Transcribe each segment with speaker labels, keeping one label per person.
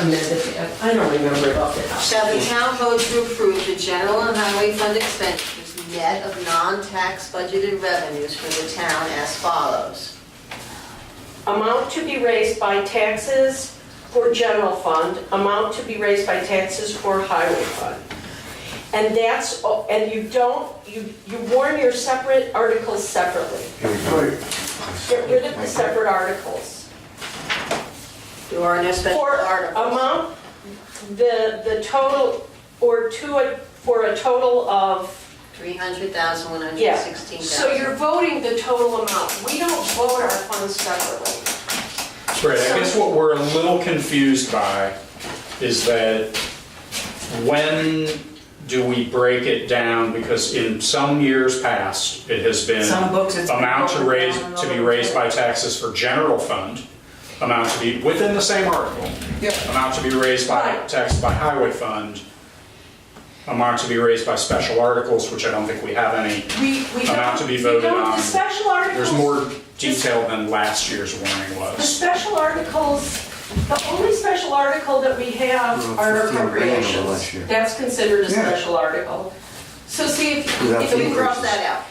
Speaker 1: amended, I I don't remember it off the top.
Speaker 2: Shall the town vote to approve the general and highway fund expenditures net of non-tax budgeted revenues for the town as follows?
Speaker 3: Amount to be raised by taxes for general fund, amount to be raised by taxes for highway fund. And that's, and you don't, you, you warn your separate articles separately. Get rid of the separate articles.
Speaker 2: There are no special
Speaker 3: For
Speaker 2: articles.
Speaker 3: amount, the, the total, or to, a- for a total of
Speaker 2: 300,000,
Speaker 3: Yeah,
Speaker 2: 116,000.
Speaker 3: so you're voting the total amount. We don't vote our funds separately.
Speaker 4: Right, I guess what we're a little confused by is that when do we break it down? Because in some years past, it has been.
Speaker 1: Some books it's been
Speaker 4: Amount to
Speaker 1: broken
Speaker 4: raise,
Speaker 1: down a
Speaker 4: to be
Speaker 1: little
Speaker 4: raised
Speaker 1: bit.
Speaker 4: by taxes for general fund, amount to be, within the same article. Amount to be raised by,
Speaker 3: Right.
Speaker 4: taxes by highway fund, amount to be raised by special articles, which I don't think we have any.
Speaker 3: We, we don't.
Speaker 4: Amount to be voted
Speaker 3: we don't-
Speaker 4: on.
Speaker 3: The special articles.
Speaker 4: There's more detail than last year's warning
Speaker 3: The
Speaker 4: was.
Speaker 3: special articles, the only special article that we have
Speaker 5: Well,
Speaker 3: are
Speaker 5: 15 grand over
Speaker 3: appropriations.
Speaker 5: last year.
Speaker 3: That's considered a
Speaker 5: Yeah.
Speaker 3: special article. So see if,
Speaker 5: Without
Speaker 3: if we
Speaker 5: the
Speaker 3: cross
Speaker 2: Cross that out.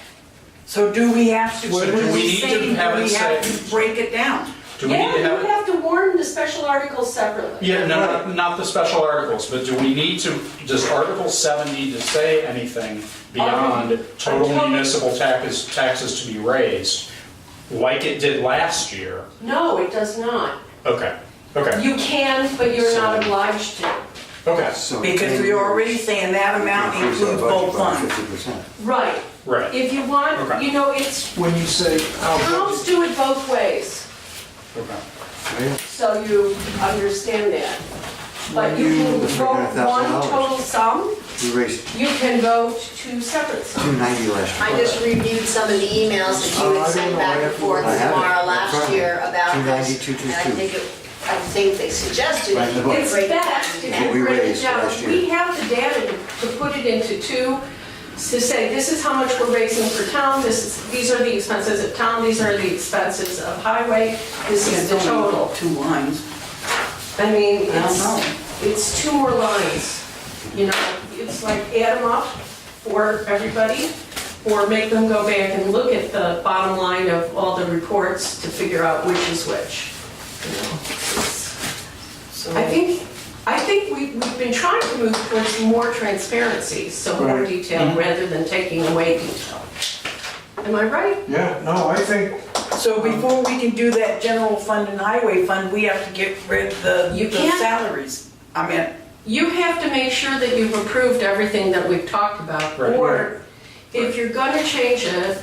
Speaker 6: So do we have to,
Speaker 4: So
Speaker 6: what
Speaker 4: do
Speaker 6: do
Speaker 4: we
Speaker 6: we
Speaker 4: need to
Speaker 6: say, do we
Speaker 4: have it
Speaker 6: have
Speaker 4: say-
Speaker 6: to break it down?
Speaker 4: Do we
Speaker 3: yeah,
Speaker 4: need to have?
Speaker 3: you have to warn the special articles separately.
Speaker 4: Yeah, no, not- not the special articles, but do we need to, does Article 7 need to say anything beyond total
Speaker 3: Article-
Speaker 4: municipal taxes, taxes to be raised, like it did last year?
Speaker 3: No, it does not.
Speaker 4: Okay, okay,
Speaker 3: You can, but you're
Speaker 4: So-
Speaker 3: not obliged to.
Speaker 4: okay,
Speaker 5: So
Speaker 6: Because
Speaker 5: 10
Speaker 6: we're already
Speaker 5: years,
Speaker 6: saying that amount
Speaker 5: increase our
Speaker 6: includes
Speaker 5: budget
Speaker 6: both
Speaker 5: by
Speaker 6: funds.
Speaker 5: 50%.
Speaker 3: Right.
Speaker 4: right,
Speaker 3: If you want,
Speaker 4: Okay. Oh,
Speaker 3: you know, it's,
Speaker 5: When you say our
Speaker 3: towns do it both ways,
Speaker 4: okay.
Speaker 5: budget,
Speaker 3: so you understand that. But you
Speaker 5: You-
Speaker 3: can
Speaker 5: Let's make it a
Speaker 3: vote
Speaker 5: thousand
Speaker 3: one
Speaker 5: dollars.
Speaker 3: total sum,
Speaker 5: we raised
Speaker 3: you can vote two separate sums.
Speaker 5: 290 last
Speaker 2: I
Speaker 5: year.
Speaker 2: just reviewed some of the emails that you
Speaker 5: Oh, I
Speaker 2: had
Speaker 5: don't
Speaker 2: sent
Speaker 5: know. I
Speaker 2: back and
Speaker 5: have to-
Speaker 2: forth
Speaker 5: I have it.
Speaker 2: tomorrow
Speaker 5: In front
Speaker 2: last
Speaker 5: of me.
Speaker 2: year about this.
Speaker 5: 292.22.
Speaker 2: And I think, it- I think they suggested
Speaker 5: Right in the
Speaker 2: you
Speaker 5: book.
Speaker 2: could
Speaker 3: It's
Speaker 2: break it
Speaker 3: best
Speaker 2: down.
Speaker 3: if
Speaker 5: What
Speaker 3: you
Speaker 5: we
Speaker 3: break it
Speaker 5: raised
Speaker 3: down.
Speaker 5: last
Speaker 3: We
Speaker 5: year.
Speaker 3: have the data to- to put it into two, to say, this is how much we're raising for town, this is, these are the expenses of town, these are the expenses of highway, this
Speaker 6: Yeah,
Speaker 3: is the
Speaker 6: it's only
Speaker 3: total.
Speaker 6: Two lines.
Speaker 3: I mean,
Speaker 6: I don't know.
Speaker 3: it's, it's two more lines, you know, it's like add them up for everybody, or make them go back and look at the bottom line of all the reports to figure out which is which. you know.
Speaker 1: So-
Speaker 3: I think, I think we- we've been trying to move towards more transparency, so more
Speaker 7: Right.
Speaker 3: detail, rather than taking away detail. Am I right?
Speaker 7: Yeah, no, I think,
Speaker 6: So
Speaker 3: um,
Speaker 6: before we can do that general fund and highway fund, we have to get rid of the
Speaker 3: You
Speaker 6: the
Speaker 3: can't-
Speaker 6: salaries. I mean,
Speaker 3: You have to make sure that you've approved everything that we've talked about.
Speaker 4: Right.
Speaker 3: Or if you're gonna change it,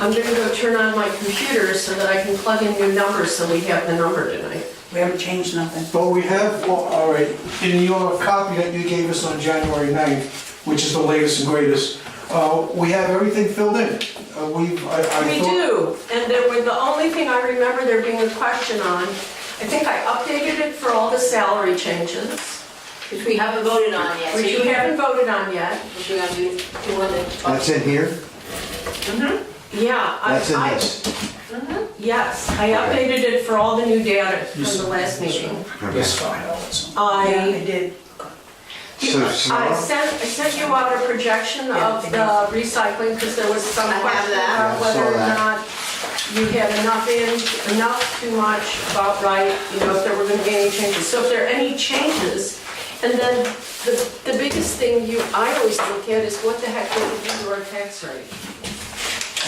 Speaker 3: I'm gonna go turn on my computer so that I can plug in new numbers so we have the number tonight.
Speaker 6: we haven't changed nothing.
Speaker 7: but we have, well, all right, in your copy that you gave us on January 9th, which is the latest and greatest, uh, we have everything filled in. Uh, We, I, I
Speaker 3: We
Speaker 7: thought,
Speaker 3: do, and there were, the only thing I remember there being a question on, I think I updated it for all the salary changes,
Speaker 2: Which we haven't voted on yet. So
Speaker 3: which you haven't voted on yet.
Speaker 2: Which you're gonna do, you wanna talk
Speaker 5: That's in here?
Speaker 3: Yeah. I-
Speaker 5: That's in
Speaker 3: I-
Speaker 5: this?
Speaker 3: Yes, I updated it for all the new data from the last meeting.
Speaker 4: This file, it's-
Speaker 6: Yeah,
Speaker 3: I
Speaker 6: it did.
Speaker 5: So
Speaker 3: I
Speaker 5: Sonora?
Speaker 3: sent, I sent you out a projection
Speaker 6: Yeah,
Speaker 3: of
Speaker 6: I
Speaker 3: the recycling, because there was some
Speaker 2: I have
Speaker 3: question
Speaker 2: that.
Speaker 3: about
Speaker 5: Yeah, I saw
Speaker 3: whether or
Speaker 5: that.
Speaker 3: not you had enough in, enough, too much, about right, you know, if there were gonna be any changes. So if there are any changes, and then the, the biggest thing you, I always look at is what the heck did we do to our tax rate?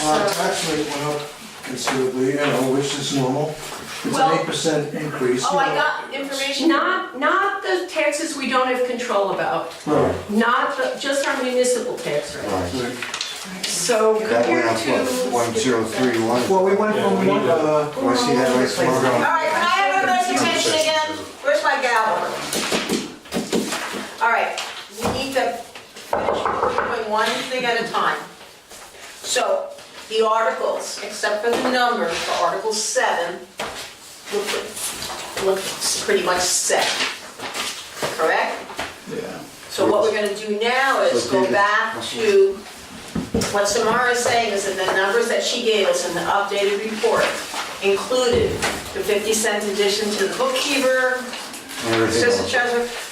Speaker 7: uh, tax rate went up considerably, you know, which is normal. It's
Speaker 3: Well-
Speaker 7: an 8% increase.
Speaker 2: Oh, I got information.
Speaker 3: Not, not the taxes we don't have control about,
Speaker 7: Right,
Speaker 3: not, the- just our municipal tax rate.
Speaker 5: Right.
Speaker 7: right.
Speaker 3: So
Speaker 5: That went
Speaker 3: compared
Speaker 5: up,
Speaker 3: to.
Speaker 5: what, 1031?
Speaker 7: Well, we went from
Speaker 4: Yeah, we
Speaker 7: one,
Speaker 4: need to-
Speaker 7: uh,
Speaker 5: Do I see that right, Sonora?
Speaker 2: All right, can I have everybody's attention again? Where's my gavel? All right, we need to finish doing one thing at a time. So, the articles, except for the numbers, for Article 7, look, look pretty much set, correct?
Speaker 4: Yeah.
Speaker 2: So what we're gonna do now is
Speaker 5: So do
Speaker 2: go
Speaker 5: the-
Speaker 2: back to what Samara is saying is that the numbers that she gave us in the updated report included the 50 cent addition to the bookkeeper,
Speaker 8: and everything else.
Speaker 9: Assistant Treasurer,